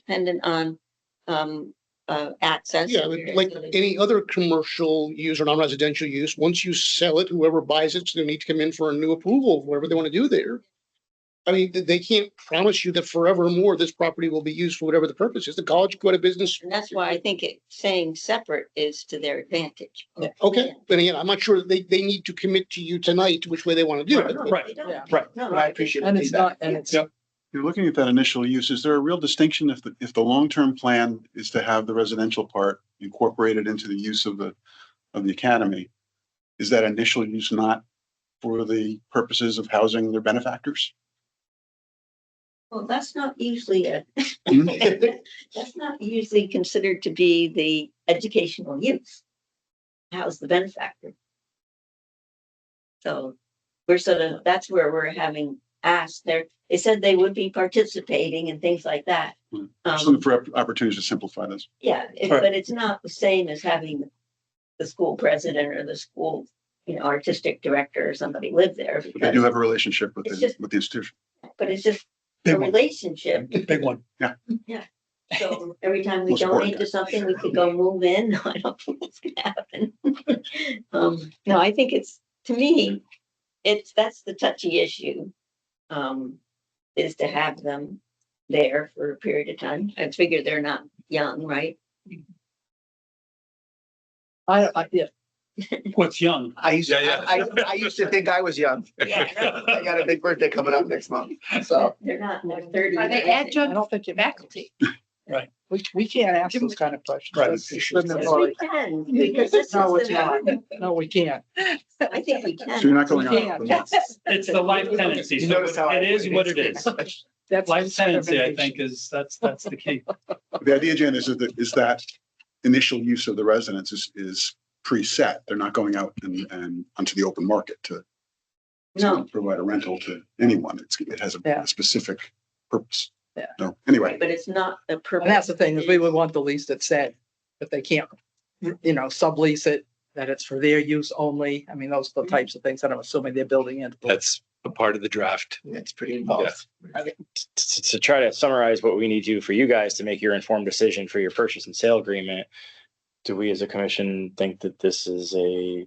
dependent on, um, uh, access. Yeah, but like any other commercial use or non-residential use, once you sell it, whoever buys it's gonna need to come in for a new approval, of whatever they want to do there. I mean, th- they can't promise you that forevermore this property will be used for whatever the purpose is. The college could go out of business. And that's why I think it, saying separate is to their advantage. Okay, but again, I'm not sure that they, they need to commit to you tonight which way they want to do it. Right, They don't. Yeah. right. No, And I appreciate And the it's feedback. not, and it's, Yep. You're looking at that initial use. Is there a real distinction if the, if the long-term plan is to have the residential part incorporated into the use of the, of the academy? Is that initial use not for the purposes of housing their benefactors? Well, that's not usually a, Hmm? that's not usually considered to be the educational use. How's the benefactor? So we're sort of, that's where we're having asked there. They said they would be participating and things like that. Hmm. Just Um, looking for opp- opportunities to simplify this. yeah, it- Right. but it's not the same as having the school president or the school, you know, artistic director or somebody live there But They do because, have a relationship with It's the, just- with the institution. but it's just a Big one, relationship. big one. So every time we Most important donate to guy. something, we could go move in. I don't think it's gonna happen. Um, no, I think it's, to me, it's, that's the touchy issue. Um, is to have them there for a period of time. I figure they're not young, right? I, I, yeah, What's young? I used, Yeah, I, I I used to think I was young. I got a big birthday coming up next month, so. They're not in their thirties. Are they I adjunct don't think it matters. faculty? We, we can't ask those kind of questions. Right. That's Yes, discriminatory. we can, because this is No, it's the- No, we can't. I think we So you're can. not We going can't. out. That's- It's the life tenancy. You So notice how it I- is what it is. That's. Life tenancy, I think, is, that's, that's the key. The idea, Jan, is that, is that initial use of the residence is, is preset. They're not going out and, and onto the open market to It's No, not Provide a rental to anyone. It's, it has a- Yeah. a specific purpose. Yeah. No, anyway, but it's not a purpose. And that's the thing, is we would want the lease that said, that they can't, you know, sublease it, that it's for their use only. I mean, those Mm-hmm. are the types of things that I'm assuming they're building in. That's a part of the draft. It's pretty involved. to, to try to summarize what we need to for you guys to make your informed decision for your purchase and sale agreement. Do we as a commission think that this is a You're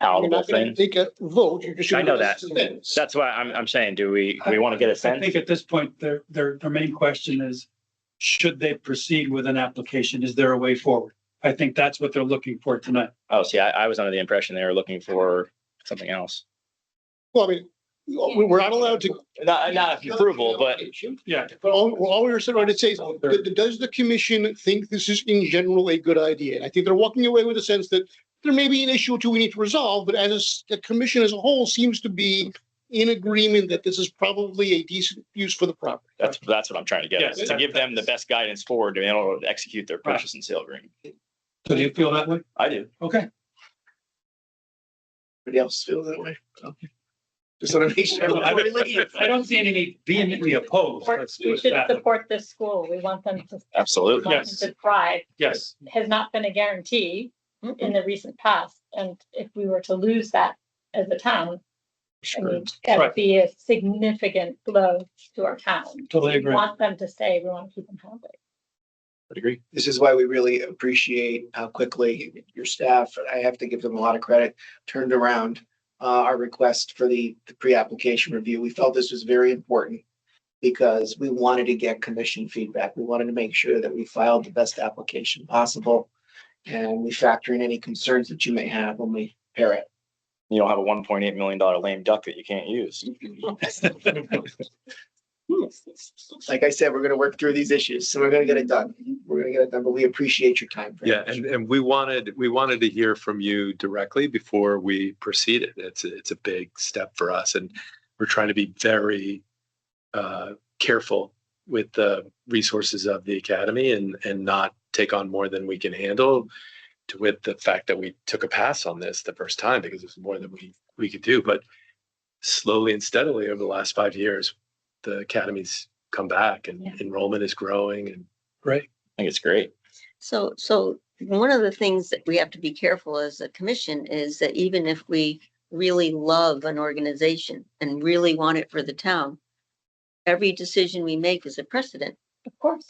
palatable not gonna thing? take a vote. You're just. I know gonna that. listen to That's why I'm, I'm saying, do we, do we want to get a I think sense? at this point, their, their, their main question is, should they proceed with an application? Is there a way forward? I think that's what they're looking for tonight. Oh, see, I, I was under the impression they were looking for something else. Well, I mean, we- we're not allowed to. Not, not approval, but Yeah. But all, well, all we were sort of trying to say is, d- d- does the commission think this is in general a good idea? And I think they're walking away with a sense that there may be an issue or two we need to resolve, but as a s- the commission as a whole seems to be in agreement that this is probably a decent use for the property. that's, that's what I'm trying to get, is Yes, to give them the best guidance forward to be able to execute their purchase and sale agreement. So do you feel that way? I do. Okay. Everybody else feel that way? Just want to make sure. I everybody leaves. don't- I don't see any vehemently opposed. Or Let's do we it should that way. support this school. We want them to, we Absolutely. want Yes. them to thrive. Yes. Has not been a guarantee in the recent past. And if we were to lose that as a town, I mean, that Right. would be a significant blow to our town. Totally We agree. Want them to stay. We want to keep them happy. Would agree. This is why we really appreciate how quickly your staff, I have to give them a lot of credit, turned around uh, our request for the the pre-application review. We felt this was very important because we wanted to get commission feedback. We wanted to make sure that we filed the best application possible. And we factor in any concerns that you may have when we pair it. You don't have a one point eight million dollar lame duck that you can't use. Like I said, we're going to work through these issues, so we're going to get it done. We're going to get it done, but we appreciate your time. very Yeah, much. and, and we wanted, we wanted to hear from you directly before we proceeded. It's, a- it's a big step for us and we're trying to be very uh, careful with the resources of the academy and, and not take on more than we can handle to with the fact that we took a pass on this the first time because it's more than we, we could do. But slowly and steadily over the last five years, the academy's come back and Yeah. enrollment is growing and I think it's great. So, so one of the things that we have to be careful as a commission is that even if we really love an organization and really want it for the town, every decision we make is a precedent. Of course.